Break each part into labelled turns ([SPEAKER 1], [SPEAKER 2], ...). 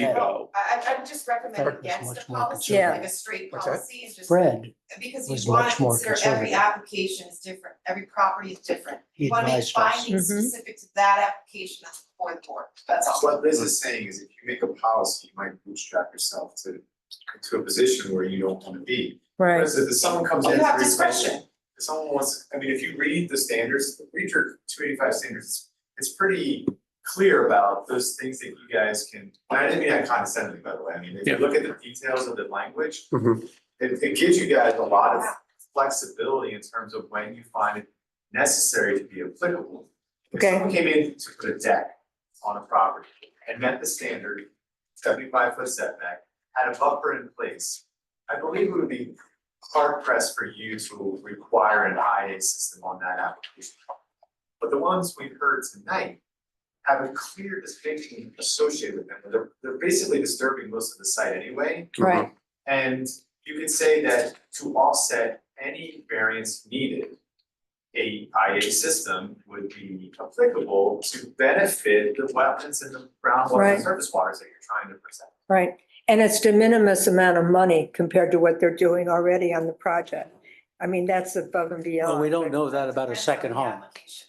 [SPEAKER 1] placebo.
[SPEAKER 2] I, I- I would just recommend
[SPEAKER 3] Fred was
[SPEAKER 2] against
[SPEAKER 3] much
[SPEAKER 2] the
[SPEAKER 3] more
[SPEAKER 2] policy,
[SPEAKER 4] conservative.
[SPEAKER 2] like a straight
[SPEAKER 3] What's that?
[SPEAKER 2] policy is just,
[SPEAKER 3] Fred,
[SPEAKER 2] because
[SPEAKER 3] was
[SPEAKER 2] you wanna
[SPEAKER 3] much more
[SPEAKER 2] consider every
[SPEAKER 3] conservative.
[SPEAKER 2] application is different, every property is different.
[SPEAKER 3] he
[SPEAKER 2] You wanna make
[SPEAKER 3] advised us.
[SPEAKER 2] findings
[SPEAKER 4] Mhm.
[SPEAKER 2] specific to that application that's before the board, that's all.
[SPEAKER 5] What Liz is saying is if you make a policy, you might bootstrap yourself to to a position where you don't wanna be.
[SPEAKER 4] right,
[SPEAKER 5] Whereas if someone comes in.
[SPEAKER 2] You have
[SPEAKER 5] for example,
[SPEAKER 2] discretion,
[SPEAKER 5] If someone wants, I mean, if you read the standards, read your two eighty five standards, it's- it's pretty clear about those things that you guys can. And I didn't mean that condescendingly, by the way, I mean, if you
[SPEAKER 1] Yeah.
[SPEAKER 5] look at the details of the language,
[SPEAKER 3] Mhm.
[SPEAKER 5] it it gives you guys a lot of flexibility in terms of when you find it necessary to be applicable. If
[SPEAKER 4] Okay.
[SPEAKER 5] someone came in to put a deck on a property and met the standard seventy-five foot setback, had a buffer in place, I believe it would be hard pressed for you to require an IA system on that application. But the ones we've heard tonight have a clear distinction associated with them, they're they're basically disturbing most of the site anyway.
[SPEAKER 4] right,
[SPEAKER 5] And you could say that to offset any variance needed, a IA system would be applicable to benefit the wetlands and the groundwater
[SPEAKER 4] Right.
[SPEAKER 5] and surface waters that you're trying to protect.
[SPEAKER 4] right. And it's de minimis amount of money compared to what they're doing already on the project. I mean, that's above and beyond.
[SPEAKER 3] Well, we don't
[SPEAKER 4] but-
[SPEAKER 3] know that about a second home.
[SPEAKER 2] Application.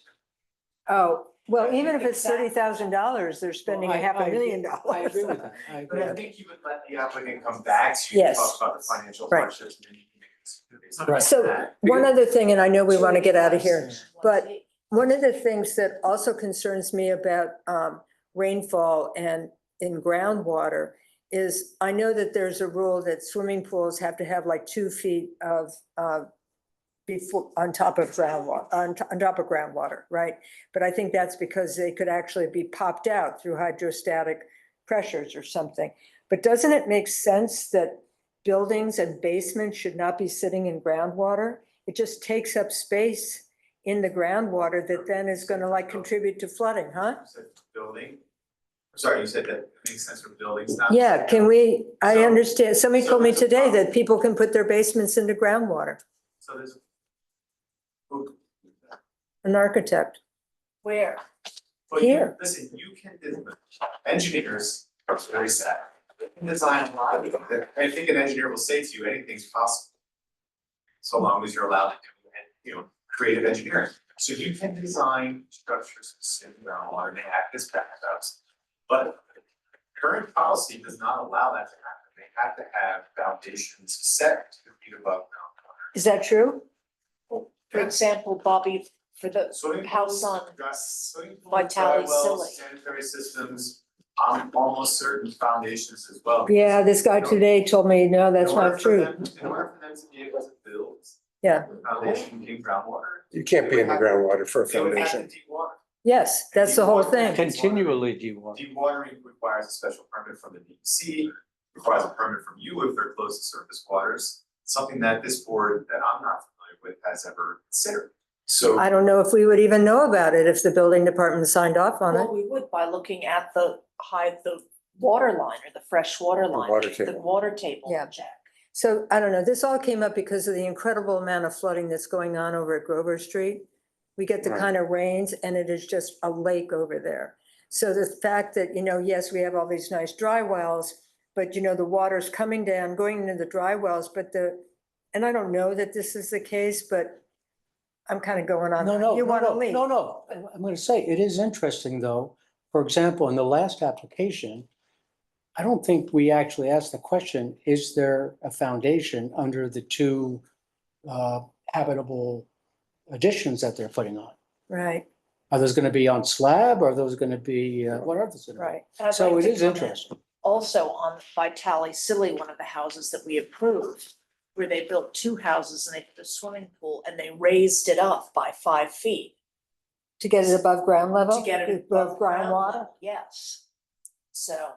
[SPEAKER 4] Oh, well, even if it's
[SPEAKER 2] Exactly.
[SPEAKER 4] thirty thousand dollars, they're spending
[SPEAKER 3] Well, I-
[SPEAKER 4] half
[SPEAKER 3] I
[SPEAKER 4] a
[SPEAKER 3] agree-
[SPEAKER 4] million dollars.
[SPEAKER 3] I agree with that. I
[SPEAKER 5] But
[SPEAKER 3] agree.
[SPEAKER 5] I think you would let the applicant come back to you and
[SPEAKER 4] Yes.
[SPEAKER 5] talk about the financial
[SPEAKER 4] Right.
[SPEAKER 5] hardships and then you can make this. it's not
[SPEAKER 3] Right.
[SPEAKER 5] just
[SPEAKER 4] So
[SPEAKER 5] that.
[SPEAKER 4] one other thing, and I know we want to get out of here. but-
[SPEAKER 2] It
[SPEAKER 4] One of the things that also concerns me about um, rainfall and in groundwater is I know that there's a rule that swimming pools have to have like two feet of uh, before, on top of groundwater, on to- on top of groundwater, right? But I think that's because they could actually be popped out through hydrostatic pressures or something. But doesn't it make sense that buildings and basements should not be sitting in groundwater? It just takes up space in the groundwater that then is gonna like contribute to flooding, huh?
[SPEAKER 5] You said Building, I'm sorry, you said that makes sense for buildings, not.
[SPEAKER 4] Yeah, can we, I
[SPEAKER 5] Uh, So-
[SPEAKER 4] understand, somebody
[SPEAKER 5] so
[SPEAKER 4] told me
[SPEAKER 5] there's a
[SPEAKER 4] today
[SPEAKER 5] problem.
[SPEAKER 4] that people can put their basements into groundwater,
[SPEAKER 5] So there's. Who-
[SPEAKER 4] an architect. Where?
[SPEAKER 5] But you,
[SPEAKER 4] Here.
[SPEAKER 5] listen, you can, engineers are very sad. They can design a lot of it. I think an engineer will say to you, anything's possible. So long as you're allowed to do, and, you know, creative engineering. So you can design structures in groundwater and they act as backups. But current policy does not allow that to happen. They have to have foundations set to feet above groundwater.
[SPEAKER 4] Is that true?
[SPEAKER 6] For example, Bobby, for the,
[SPEAKER 5] Swimming
[SPEAKER 6] house
[SPEAKER 5] pools,
[SPEAKER 6] on
[SPEAKER 5] dry- swimming pools,
[SPEAKER 6] Vitale
[SPEAKER 5] dry wells,
[SPEAKER 6] Silly.
[SPEAKER 5] Sanitary systems, I'm almost certain foundations as well.
[SPEAKER 4] Yeah, this guy today told me, no, that's
[SPEAKER 5] In order
[SPEAKER 4] not
[SPEAKER 5] for
[SPEAKER 4] true.
[SPEAKER 5] them- In order for them to be able to build.
[SPEAKER 4] Yeah.
[SPEAKER 5] the Foundation in groundwater,
[SPEAKER 7] You can't be in the groundwater for a
[SPEAKER 5] they would have to
[SPEAKER 7] foundation.
[SPEAKER 5] de-water.
[SPEAKER 4] Yes, that's the whole
[SPEAKER 5] Deep water.
[SPEAKER 4] thing.
[SPEAKER 3] Continually do you want?
[SPEAKER 5] Dewatering requires a special permit from the DEC, requires a permit from you if they're close to surface waters. Something that this board, that I'm not familiar with, has ever considered. So
[SPEAKER 4] I don't know if we would even know about it if the building department signed off on it.
[SPEAKER 6] well, we would by looking at the high, the water line or the fresh water line.
[SPEAKER 7] water
[SPEAKER 6] The
[SPEAKER 7] table.
[SPEAKER 6] water table
[SPEAKER 4] Yeah.
[SPEAKER 6] check.
[SPEAKER 4] So I don't know, this all came up because of the incredible amount of flooding that's going on over at Grover Street. We get the
[SPEAKER 7] Right.
[SPEAKER 4] kind of rains and it is just a lake over there. So the fact that, you know, yes, we have all these nice dry wells, but you know, the water's coming down, going into the dry wells, but the, and I don't know that this is the case, but I'm kind of going on.
[SPEAKER 3] No, no,
[SPEAKER 4] You
[SPEAKER 3] no,
[SPEAKER 4] want to
[SPEAKER 3] no,
[SPEAKER 4] leave?
[SPEAKER 3] no, no. I'm- I'm going to say, it is interesting, though. For example, in the last application, I don't think we actually asked the question, is there a foundation under the two uh, habitable additions that they're putting on?
[SPEAKER 4] Right,
[SPEAKER 3] Are those going to be on slab? Are those going to be, uh, what are those? gonna be?
[SPEAKER 4] right.
[SPEAKER 6] And I'd
[SPEAKER 3] So
[SPEAKER 6] like
[SPEAKER 3] it
[SPEAKER 6] to
[SPEAKER 3] is
[SPEAKER 6] comment
[SPEAKER 3] interesting.
[SPEAKER 6] Also on Vitale Silly, one of the houses that we approved, where they built two houses and they put a swimming pool and they raised it up by five feet
[SPEAKER 4] To get it above ground level?
[SPEAKER 6] to get it above groundwater. Yes. So,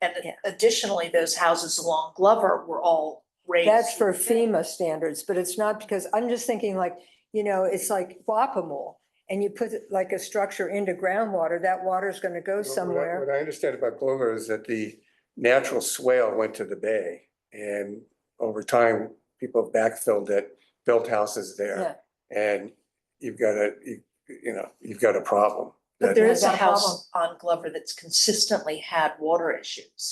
[SPEAKER 6] and
[SPEAKER 4] Yeah.
[SPEAKER 6] additionally, those houses along Glover were all raised.
[SPEAKER 4] That's for
[SPEAKER 6] with it.
[SPEAKER 4] FEMA standards, but it's not because, I'm just thinking like, you know, it's like Wapamol. And you put like a structure into groundwater, that water's gonna go
[SPEAKER 7] What I-
[SPEAKER 4] somewhere.
[SPEAKER 7] What I understand about Glover is that the natural swale went to the bay and over time, people backfilled it, built houses there. And you've got a, you, you know, you've got a problem.
[SPEAKER 6] But there
[SPEAKER 4] Yeah,
[SPEAKER 6] is a
[SPEAKER 4] that
[SPEAKER 6] house on Glover that's consistently had water issues.